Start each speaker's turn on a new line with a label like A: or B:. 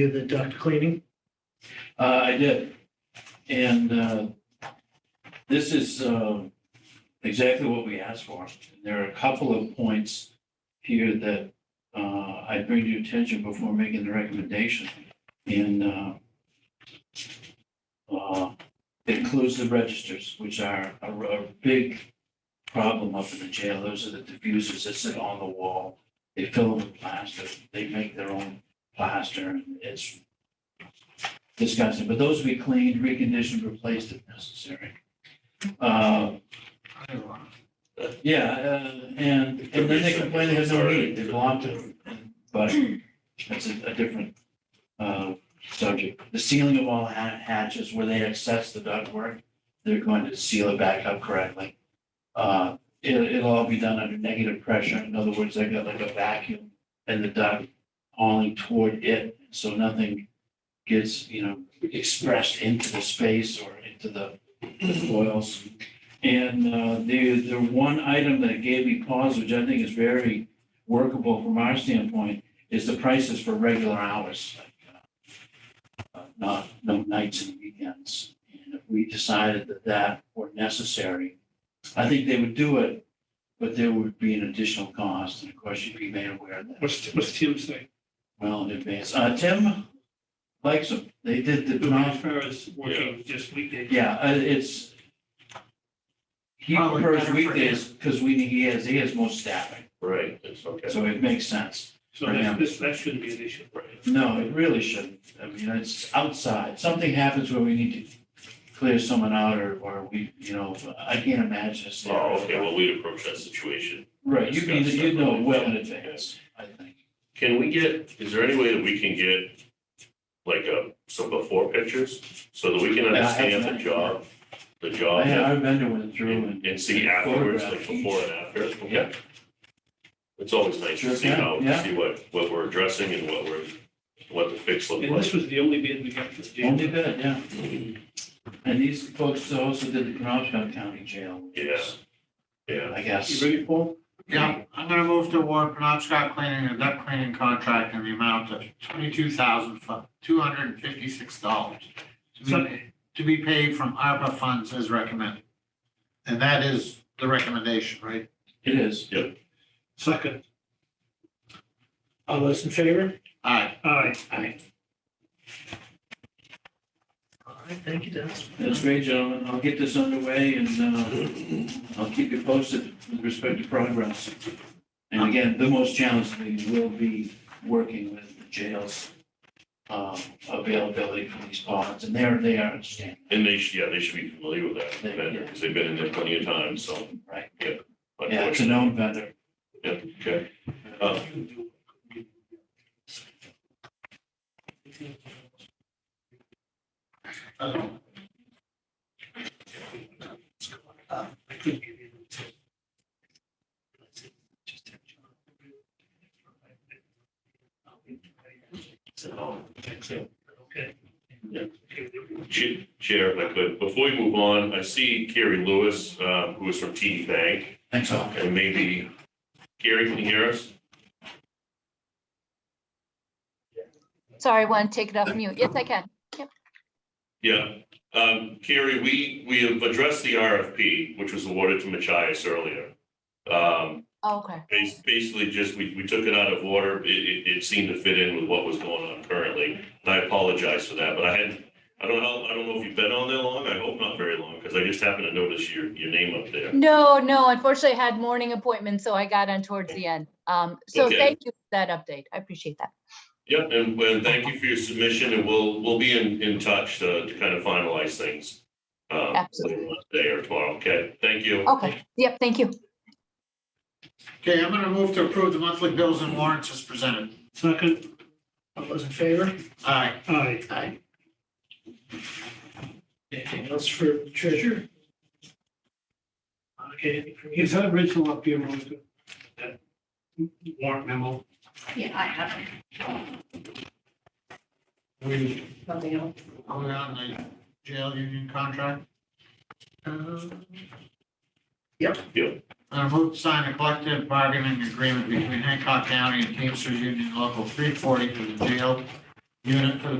A: did the duct cleaning?
B: Uh, I did. And, uh, this is, uh, exactly what we asked for. There are a couple of points here that, uh, I bring to your attention before making the recommendation. And, uh, uh, it includes the registers, which are a, a big problem up in the jail. Those are the diffusers that sit on the wall. They fill them with plaster. They make their own plaster and it's disgusting, but those will be cleaned, reconditioned, replaced if necessary. Uh, Yeah, uh, and, and then they complain they have no need, they belong to, but that's a, a different uh, subject. The sealing of all ha- hatches where they access the ductwork, they're going to seal it back up correctly. Uh, It'll, it'll all be done under negative pressure, in other words, they got like a vacuum and the duct hauling toward it, so nothing gets, you know, expressed into the space or into the the foils. And uh, the, the one item that gave me pause, which I think is very workable from our standpoint, is the prices for regular hours, like uh, uh, not, no nights and weekends. And if we decided that that were necessary, I think they would do it, but there would be an additional cost, and of course, you'd be made aware of that
A: What's, what's Tim say?
B: well in advance. Uh, Tim likes them. They did the
A: As
B: drum.
A: far as working just weekdays.
B: Yeah, uh, it's. He
C: Probably
B: prefers
C: better for
B: weekdays because we, he has, he has most staffing,
D: Right, it's okay.
B: so it makes sense.
A: So that's- this, that shouldn't be an issue.
B: No, it really shouldn't. I mean, it's outside. Something happens where we need to clear someone out or, or we, you know, I can't imagine. a
D: Oh,
B: scenario.
D: okay, well, we'd approach that situation.
B: Right, you can,
D: Discuss
B: you know
D: separately.
B: well in advance, I think.
D: Can we get, is there any way that we can get like a, some before pictures so that we can
B: I have
D: understand the
B: that.
D: job, the
B: I
D: job
B: had,
D: and-
B: our vendor went through and.
D: and see afterwards, like
B: photographed
D: before
B: each.
D: and after?
B: Yeah.
D: Okay. It's always nice
B: Sure
D: to see
B: can,
D: how,
B: yeah.
D: to see what, what we're addressing and what we're, what the fix look
A: And
D: like.
A: this was the only bid we got for the
B: Only
A: jail.
B: good, yeah. And these folks also did the Penobscot County Jail. which is,
D: Yeah,
B: I
A: You
B: guess.
A: ready, Paul?
C: Yeah, I'm gonna move to award Penobscot Cleaning a duct cleaning contract in the amount of twenty-two thousand, two hundred and fifty-six dollars to be, to be paid from ARPA funds as recommended. And that is the recommendation, right?
B: It is.
A: Second. All those in favor?
C: Aye.
A: Aye.
B: Aye.
A: All right, thank you, Dennis.
B: That's great, gentlemen. I'll get this underway and uh, I'll keep you posted with respect to progress. And again, the most challenging thing will be working with the jails um, availability for these bonds, and they're, they are understanding.
D: and they should, yeah, they should be familiar with that
B: They-
D: vendor
B: yeah.
D: because they've been in there plenty of times, so.
B: Right.
D: Yeah.
B: Yeah, it's a known vendor.
D: Yeah, okay. Uh,
A: Okay.
D: Ch- Chair, if I could, before we move on, I see Carrie Lewis, uh, who is from TD Bank,
B: Thanks all.
D: and maybe, Carrie, can you hear us?
E: Sorry, one, take it off mute. Yes, I can.
D: Yeah, um, Carrie, we, we have addressed the RFP, which was awarded to Machias earlier. Um,
E: Oh, Okay.
D: bas- basically just, we, we took it out of order, it, it, it seemed to fit in with what was going on currently. And I apologize for that, but I had, I don't know, I don't know if you've been on there long, I hope not very long, because I just happened to notice your, your name up there.
E: No, no, unfortunately, I had morning appointments, so I got on towards the end. Um, so
D: Okay.
E: thank you for that update. I appreciate that.
D: Yep, and, well thank you for your submission, and we'll, we'll be in, in touch to, to kind of finalize things. um,
E: Absolutely.
D: later on Today or tomorrow, okay, thank you.
E: Okay, yep, thank you.
C: Okay, I'm gonna move to approve the monthly bills and warrants as presented.
A: Second. All those in favor?
C: Aye.
A: Aye.
C: Aye.
A: Anything else for the treasurer? Okay, anything from you? Is that original up here, Monica? That Warrant memo?
F: Yeah, I have
C: We,
F: nothing else.
C: are we on the jail union contract?
F: Um,
C: I move to sign a collective bargaining agreement between Hancock County and Teamsters Union Local three forty for the jail unit for the